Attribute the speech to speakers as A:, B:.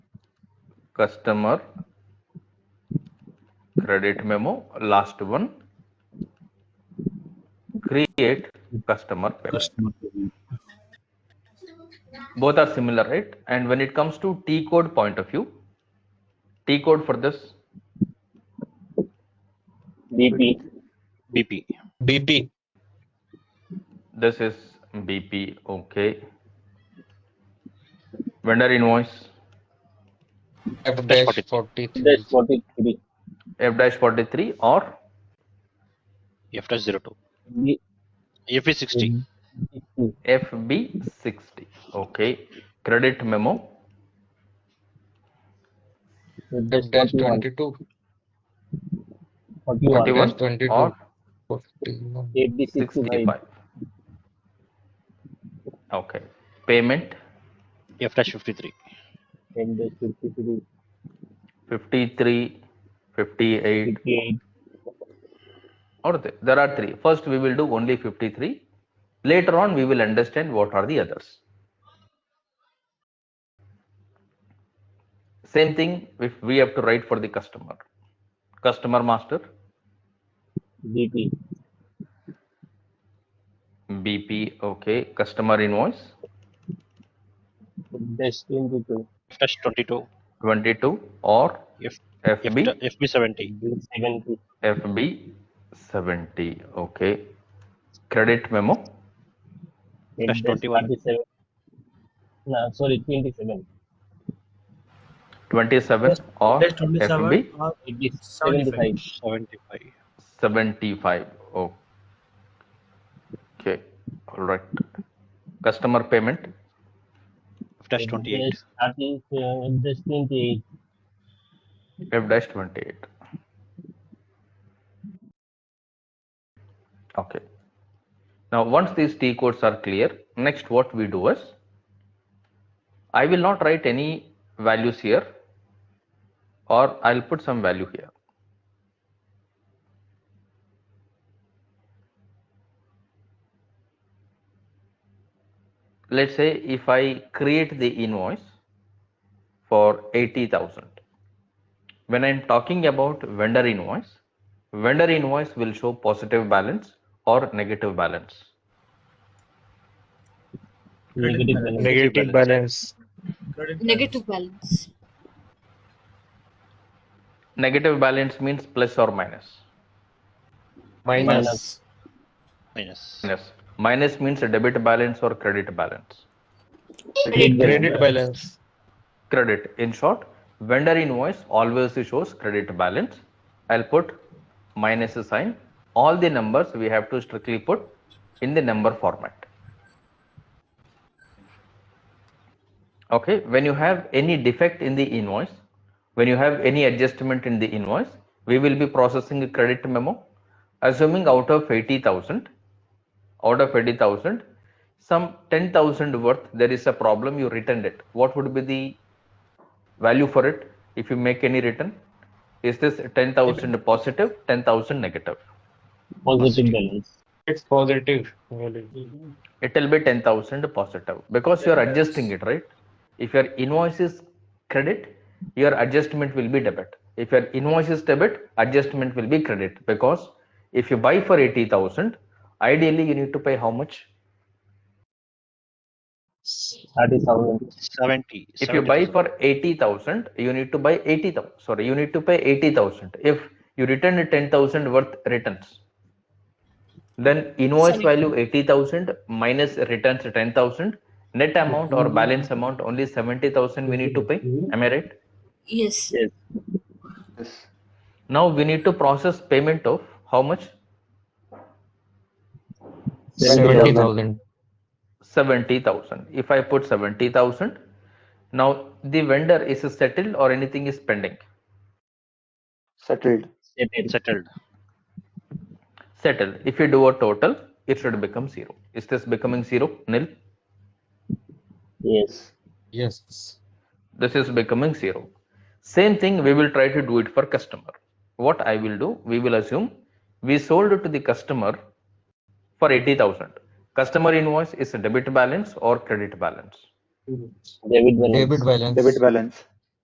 A: customer credit memo last one create customer payment
B: customer
A: both are similar right and when it comes to t code point of view t code for this
C: BP.
B: BP.
D: BP.
A: this is bp okay vendor invoice
D: F
B: Dash
D: dash
B: 43.
C: That's
D: 43.
C: 43.
A: f dash 43 or
B: F dash 02.
C: B,
B: F is 60.
A: fb60 okay credit memo
D: F dash 22.
C: 41.
D: Forty one.
A: 41
D: 22.
A: or
D: 41.
C: AB 65.
A: 65 okay payment
B: F dash 53.
C: And that's 53.
A: 53 58
C: 58.
A: or th- there are three first we will do only 53 later on we will understand what are the others same thing if we have to write for the customer customer master
C: BP.
A: bp okay customer invoice
C: That's 22.
B: F dash 22.
A: 22 or
B: F, F,
A: fb
B: da- FB 70.
C: B 70.
A: fb 70 okay credit memo
C: And
B: That's 21.
C: 47. No, sorry, 27.
A: 27 or
E: That's 27
A: fb
E: or
C: It is
E: 75.
C: 75.
B: 75.
A: 75 oh okay all right customer payment
B: F dash 28.
C: That's 30, uh, that's 28.
A: f dash 28 okay now once these t codes are clear next what we do is i will not write any values here or i'll put some value here let's say if i create the invoice for 80000 when I'm talking about vendor invoice, vendor invoice will show positive balance or negative balance.
C: Negative balance.
D: Negative balance.
E: Credit
F: negative balance
A: Negative balance means plus or minus.
D: Minus.
B: Minus.
A: Yes. Minus means a debit balance or credit balance.
F: credit
D: Credit balance.
A: Credit. In short, vendor invoice always shows credit balance. I'll put minus sign. All the numbers we have to strictly put in the number format. okay when you have any defect in the invoice when you have any adjustment in the invoice we will be processing a credit memo assuming out of 80000 out of 80000 some 10000 worth there is a problem you returned it what would be the value for it if you make any return is this 10000 positive 10000 negative
C: Positive balance.
D: It's positive. value.
A: it will be 10000 positive because you are adjusting it right if your invoice is credit your adjustment will be debit if your invoice is debit adjustment will be credit because if you buy for 80000 ideally you need to pay how much
C: 30,000.
B: 70.
A: if you buy
B: 70,000.
A: for 80000 you need to buy 80000 sorry you need to pay 80000 if you return 10000 worth returns then invoice
F: Sorry.
A: value 80000 minus returns 10000 net amount or balance amount only 70000 we need to pay am i right
F: yes
C: Yes.
A: now we need to process payment of how much
D: 70,000.
A: 70000 if i put 70000 now the vendor is settled or anything is pending
G: settled.
C: Settled.
B: settled.
A: settled if you do a total it should become zero is this becoming zero nil
C: Yes.
D: Yes.
A: this is becoming zero same thing we will try to do it for customer what i will do we will assume we sold to the customer for 80000 customer invoice is a debit balance or credit balance
C: David balance.
D: Debit balance.
G: Debit balance.